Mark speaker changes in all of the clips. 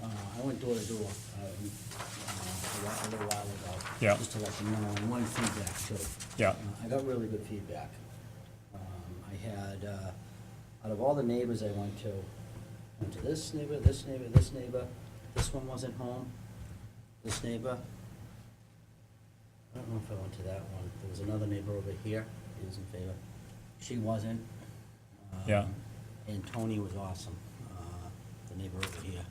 Speaker 1: Uh, I went door to door, uh, uh, a while- a little while ago.
Speaker 2: Yeah.
Speaker 1: Just to let them know, and one feedback too.
Speaker 2: Yeah.
Speaker 1: Uh, I got really good feedback. Um, I had, uh, out of all the neighbors I went to, went to this neighbor, this neighbor, this neighbor, this one wasn't home, this neighbor. I don't know if I went to that one, there was another neighbor over here, he was in favor, she wasn't. Um,
Speaker 2: Yeah.
Speaker 1: And Tony was awesome, uh, the neighbor over here.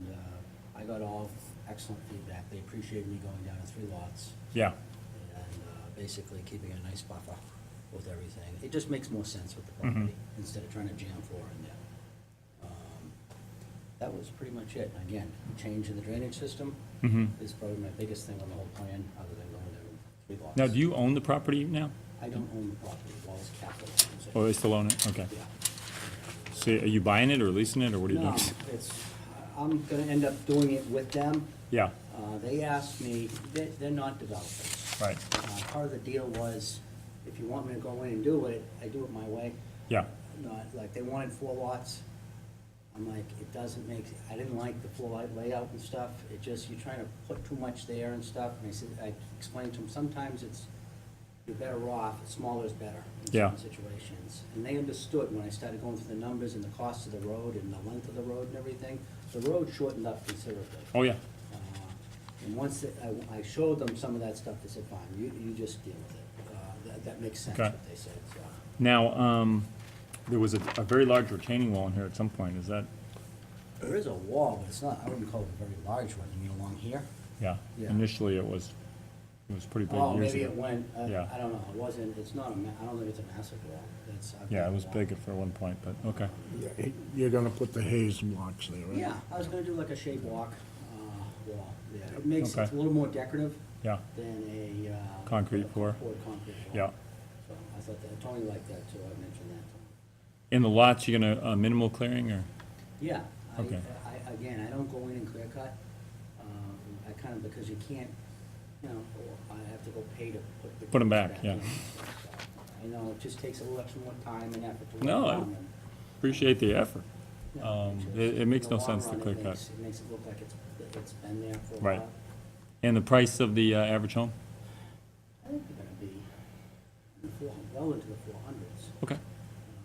Speaker 1: And, uh, I got all excellent feedback, they appreciated me going down to three lots
Speaker 2: yeah,
Speaker 1: and uh, basically keeping a nice buffer with everything. It just makes more sense with the
Speaker 2: Mhm.
Speaker 1: property, instead of trying to jam floor in there. Um, That was pretty much it. Again, change in the drainage system
Speaker 2: mhm.
Speaker 1: is probably my biggest thing on the whole plan, other than going to three lots.
Speaker 2: Now, do you own the property now?
Speaker 1: I don't own the property, Wallace Capital owns it.
Speaker 2: Or they still own it? Okay.
Speaker 1: Yeah.
Speaker 2: So are you buying it or leasing it, or what are you
Speaker 1: No,
Speaker 2: doing?
Speaker 1: it's, I'm gonna end up doing it with them.
Speaker 2: Yeah,
Speaker 1: Uh, They asked me, they- they're not developers.
Speaker 2: right,
Speaker 1: Uh, Part of the deal was, if you want me to go in and do it, I do it my way.
Speaker 2: yeah,
Speaker 1: Not, like, they wanted four lots. I'm like, it doesn't make, I didn't like the floor lay- layout and stuff. It just, you're trying to put too much there and stuff. And I said, I explained to them, sometimes it's, you're better off, smaller is better in
Speaker 2: Yeah.
Speaker 1: certain situations. And they understood when I started going through the numbers and the cost of the road and the length of the road and everything. The road shortened up considerably.
Speaker 2: oh, yeah,
Speaker 1: Uh, And once it- I- I showed them some of that stuff, they said, fine, you, you just deal with it. Uh, That, that makes sense,
Speaker 2: Okay.
Speaker 1: what they said, so.
Speaker 2: Now, um, there was a, a very large retaining wall in here at some point, is that,
Speaker 1: There is a wall, but it's not, I wouldn't call it a very large one, you mean along here?
Speaker 2: yeah,
Speaker 1: Yeah.
Speaker 2: initially it was, it was pretty big
Speaker 1: Oh,
Speaker 2: years
Speaker 1: maybe
Speaker 2: ago.
Speaker 1: it went, uh,
Speaker 2: Yeah.
Speaker 1: I don't know, it wasn't, it's not, a ma- I don't think it's a massive wall, that's. I've
Speaker 2: Yeah,
Speaker 1: got
Speaker 2: it
Speaker 1: a
Speaker 2: was
Speaker 1: wall.
Speaker 2: big at for one point, but, okay,
Speaker 3: Yeah, You're gonna put the Hayes blocks there, right?
Speaker 1: Yeah, I was gonna do like a shade walk, uh, wall, yeah. It makes,
Speaker 2: Okay.
Speaker 1: it's a little more decorative
Speaker 2: yeah,
Speaker 1: than a, uh.
Speaker 2: Concrete pour.
Speaker 1: Poured concrete pour.
Speaker 2: yeah.
Speaker 1: So I thought that, Tony liked that too, I mentioned that to him.
Speaker 2: In the lots, you're gonna, uh, minimal clearing, or,
Speaker 1: Yeah, I,
Speaker 2: Okay.
Speaker 1: I, again, I don't go in and clear cut, um, I kind of, because you can't, you know, I have to go pay to put the.
Speaker 2: Put 'em back, yeah.
Speaker 1: in. I know, it just takes a little extra more time and effort to work
Speaker 2: No, I-
Speaker 1: on them.
Speaker 2: appreciate the effort.
Speaker 1: Yeah,
Speaker 2: um,
Speaker 1: it's
Speaker 2: it-
Speaker 1: just-
Speaker 2: it makes
Speaker 1: in the
Speaker 2: no
Speaker 1: long
Speaker 2: sense to
Speaker 1: run, it
Speaker 2: clear cut.
Speaker 1: makes- It makes it look like it's, that it's been there for a
Speaker 2: Right.
Speaker 1: while.
Speaker 2: And the price of the, uh, average home?
Speaker 1: I think they're gonna be in the four, well into the four hundreds.
Speaker 2: Okay,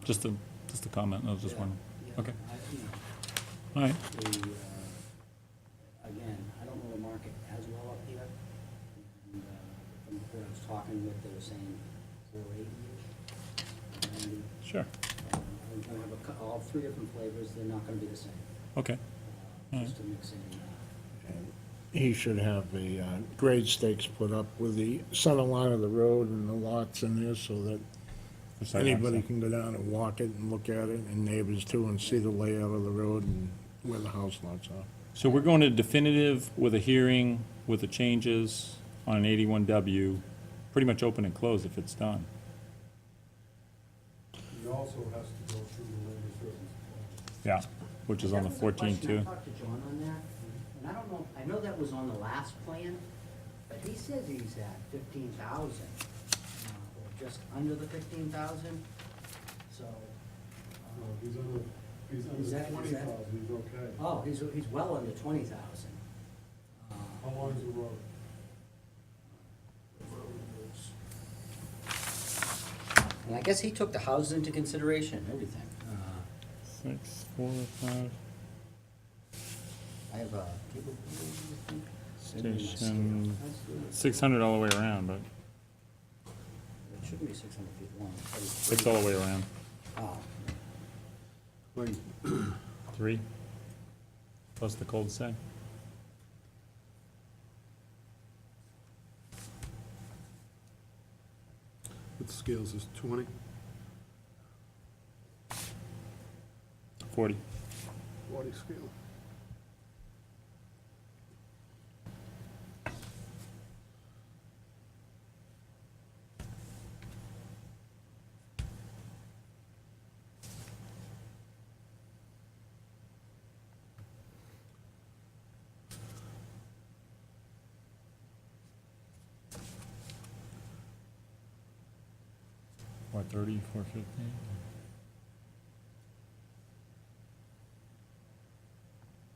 Speaker 2: just a, just a comment, I was just wondering, okay,
Speaker 1: I, you know,
Speaker 2: all right,
Speaker 1: the, uh, again, I don't know the market as well up here. And, uh, From what I was talking with, they were saying four eighty-ish. And,
Speaker 2: sure,
Speaker 1: uh, I'm gonna have a, cou- all three different flavors, they're not gonna be the same.
Speaker 2: okay,
Speaker 1: uh,
Speaker 2: Mm.
Speaker 1: Just to mix in, uh,
Speaker 3: And He should have the uh, grade stakes put up with the center line of the road and the lots in there so that
Speaker 2: For site
Speaker 3: anybody
Speaker 2: access.
Speaker 3: can go down and walk it and look at it, and neighbors too, and see the layout of the road and where the house lots are.
Speaker 2: So we're going to definitive with a hearing, with the changes on an eighty-one W, pretty much open and close if it's done.
Speaker 4: He also has to go through the land disturbance plan.
Speaker 2: Yeah. Which is on
Speaker 1: That
Speaker 2: the
Speaker 1: was a
Speaker 2: fourteen
Speaker 1: question.
Speaker 2: too.
Speaker 1: I talked to John on that, and I don't know, I know that was on the last plan, but he says he's at fifteen thousand, uh, or just under the fifteen thousand, so.
Speaker 4: No,
Speaker 1: uh,
Speaker 4: he's under, he's
Speaker 1: Is
Speaker 4: under
Speaker 1: that- is
Speaker 4: twenty
Speaker 1: that-
Speaker 4: thousand, he's okay.
Speaker 1: Oh, he's, he's well under twenty thousand.
Speaker 4: How long is the road?
Speaker 1: And I guess he took the houses into consideration, and everything. Uh,
Speaker 2: Six, four, five,
Speaker 1: I have a.
Speaker 2: Station. six hundred all the way around, but
Speaker 1: It shouldn't be six hundred feet long.
Speaker 2: it's all the way around.
Speaker 1: Oh,
Speaker 2: Three? Plus the cold sack.
Speaker 4: With scales is twenty?
Speaker 2: Forty.
Speaker 4: Forty scale.
Speaker 2: What, thirty, four fifty?